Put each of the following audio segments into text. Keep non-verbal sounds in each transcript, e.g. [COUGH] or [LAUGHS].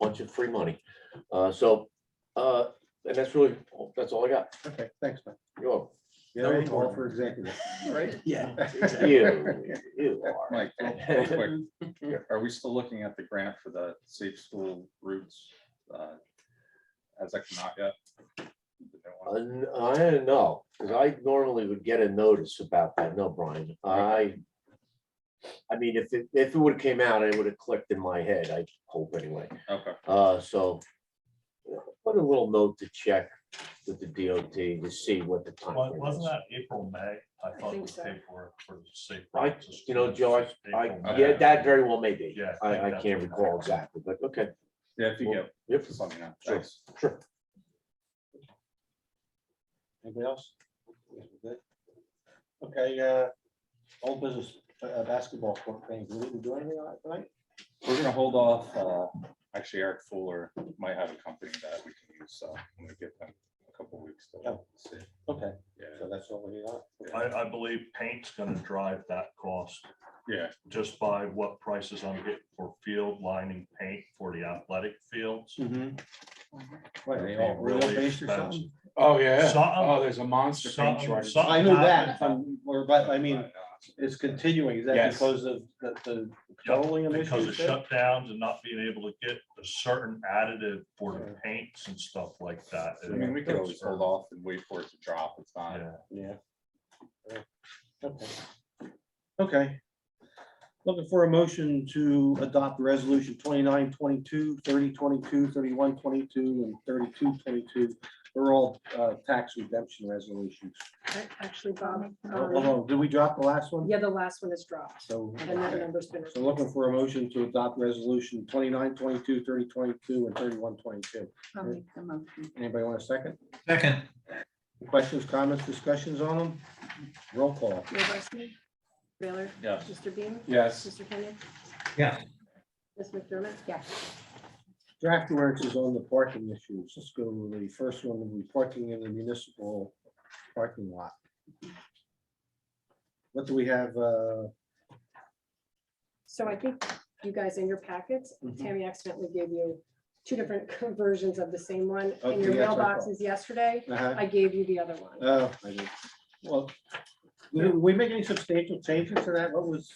bunch of free money. Uh, so, uh, and that's really, that's all I got. Okay, thanks, man. You're welcome. Yeah, all for executive, right? Yeah. You, you are. Uh, Mike, real quick, are we still looking at the grant for the safe school routes? uh, As that come out yet? Uh, n- I don't know, because I normally would get a notice about that. No, Brian, I. I mean, if it, if it would have came out, I would have clicked in my head, I hope anyway. Okay, Uh, so. uh, Put a little note to check with the DOT to see what the time. Wa- frame Wasn't is. that April, May? I thought it think was so. paperwork for the safe. I- routes to You know, schools, George, I, April, Okay. May. yeah, that very well may be. Yeah, I think I, I that's can't what that recall was. exactly, but okay, yeah, if you Well, get, yep, just let me know. Sure. Thanks. sure. Anybody else? Good. Okay, uh, old business, uh, basketball court thing, we didn't do anything on it tonight? We're gonna hold off, uh, actually Eric Fuller might have a company that we can use, so I'm gonna give them a couple weeks. to Oh. see. Okay, Yeah, so that's what we got. I, I believe paint's gonna drive that cost yeah, just by what prices I'm getting for field lining paint for the athletic fields. Mm-hmm. Wait, They're they all being real really based or expensive. something? Oh, yeah. Um, Something- uh, Oh, there's a monster paint something- shortage. something I knew happened. that, from- or, but, I mean, But, uh, it's continuing, is that Yes. because of the, the petroleum Because of issues? there? shutdowns and not being able to get a certain additive for the paints and stuff like that. I mean, we could always hold off and wait for it to drop. It's not, Yeah. Yeah. Right. Okay. Okay. Looking for a motion to adopt resolution 29, 22, 30, 22, 31, 22, and thirty-two, twenty-two. They're all uh, tax redemption resolutions. A- Actually, Bob, Hold um, on, did we drop the last one? yeah, the last one is dropped, So, and that okay. number's been. so looking for a motion to adopt resolution 29, 22, 30, 22, and thirty-one, twenty-two. I'll make the motion. Anybody want a second? Second, Questions, comments, discussions on them? Roll call. Mayor Barsney? Baylor? yes. Mr. Beam? Yes. Mr. Kenyon? yeah, Ms. McDermott? Yeah. Draft works is on the parking issues. Let's go to the first one, the parking in the municipal parking lot. What do we have? uh, So I think you guys in your packets, Mhm. Tammy accidentally gave you two different [LAUGHS] versions of the same one in Okay, your that's what I thought. mailboxes yesterday. uh-huh, I gave you the other one. uh, I did- Well, did we make any substantial changes to that? What was,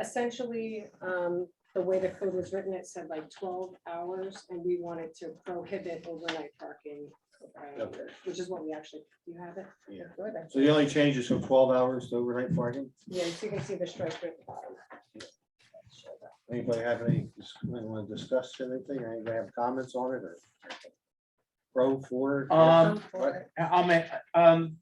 Essentially, um, the way the code was written, it said like twelve hours, and we wanted to prohibit overnight parking. um, Okay. Which is what we actually, you have it? Yeah. Go ahead. so the only change is from twelve hours to overnight parking? Yeah, so you can see the strike through at the bottom. Anybody have any, want to discuss anything? or Anybody have comments on it or? Pro for? Um, I'll make, um.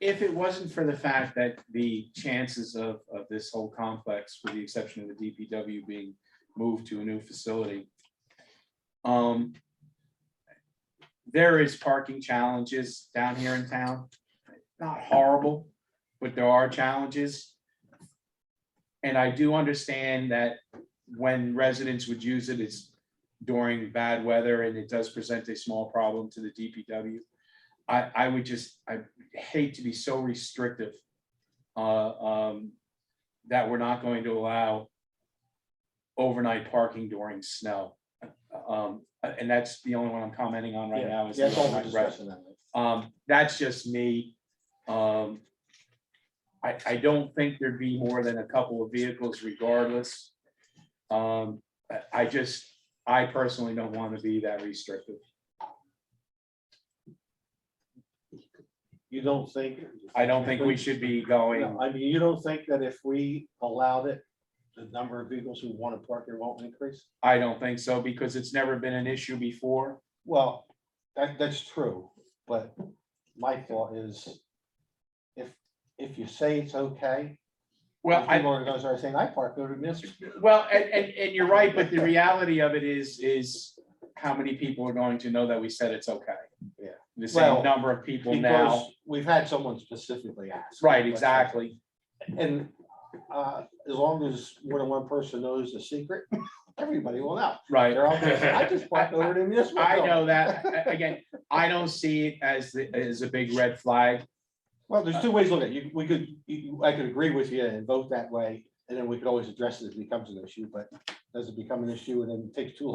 If it wasn't for the fact that the chances of, of this whole complex, with the exception of the DPW being moved to a new facility. Um. There is parking challenges down here in town, not horrible, but there are challenges. And I do understand that when residents would use it, it's during bad weather and it does present a small problem to the DPW. I, I would just, I hate to be so restrictive. Uh, um, that we're not going to allow. Overnight parking during snow. Um, and that's the only one I'm commenting on right now is. the Yeah, that's all we're overnight rest. discussing that. Um, that's just me. Um, I, I don't think there'd be more than a couple of vehicles regardless. Um, I, I just, I personally don't want to be that restrictive. You don't think? I don't think we should be going, No, I mean, you don't think that if we allowed it, the number of vehicles who want to park here won't increase? I don't think so, because it's never been an issue before. Well, that, that's true, but my thought is if, if you say it's okay, Well, I, people are gonna start saying, I park over this. well, and, and, and you're right, but the reality of it is, is how many people are going to know that we said it's okay? Yeah. The Well, same number of people now, Because we've had someone specifically ask. right, exactly. And, uh, as long as more than one person knows the secret, everybody will know. Right. They're all gonna say, I just parked over to this. [LAUGHS] I know that, A- again, I don't see it as, the as a big red flag. Well, there's two ways to look at it. You, we could, you- I could agree with you and vote that way, and then we could always address it if it becomes an issue, but does it become an issue and then it takes too long?